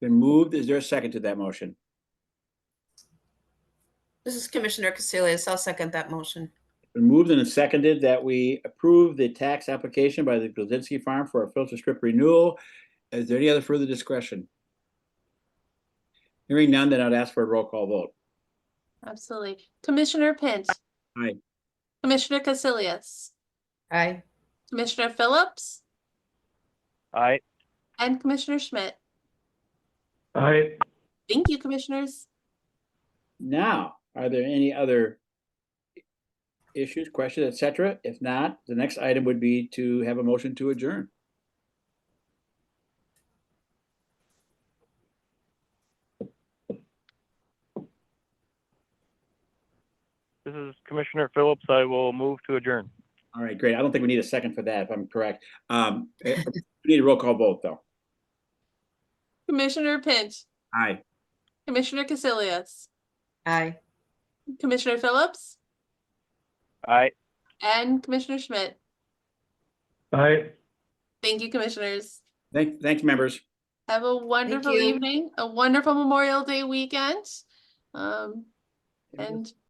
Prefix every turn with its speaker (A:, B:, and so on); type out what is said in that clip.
A: Been moved. Is there a second to that motion?
B: This is Commissioner Casilius. I'll second that motion.
A: Been moved and seconded that we approve the tax application by the Blazinski Farm for a filter strip renewal. Is there any other further discussion? Hearing none, then I'd ask for a roll call vote.
C: Absolutely. Commissioner Pinch.
A: Aye.
C: Commissioner Casilius,
B: Aye.
C: Commissioner Phillips,
D: Aye.
C: and Commissioner Schmidt.
D: Aye.
C: Thank you, commissioners.
A: Now, are there any other issues, questions, et cetera? If not, the next item would be to have a motion to adjourn.
D: This is Commissioner Phillips. I will move to adjourn.
A: All right, great. I don't think we need a second for that, if I'm correct. Um, eh, we need a roll call vote, though.
C: Commissioner Pinch,
A: Aye.
C: Commissioner Casilius,
B: Aye.
C: Commissioner Phillips,
D: Aye.
C: and Commissioner Schmidt.
D: Aye.
C: Thank you, commissioners.
A: Thank, thanks, members.
C: Have a wonderful
B: you.
C: evening, a wonderful Memorial Day weekend. Um, and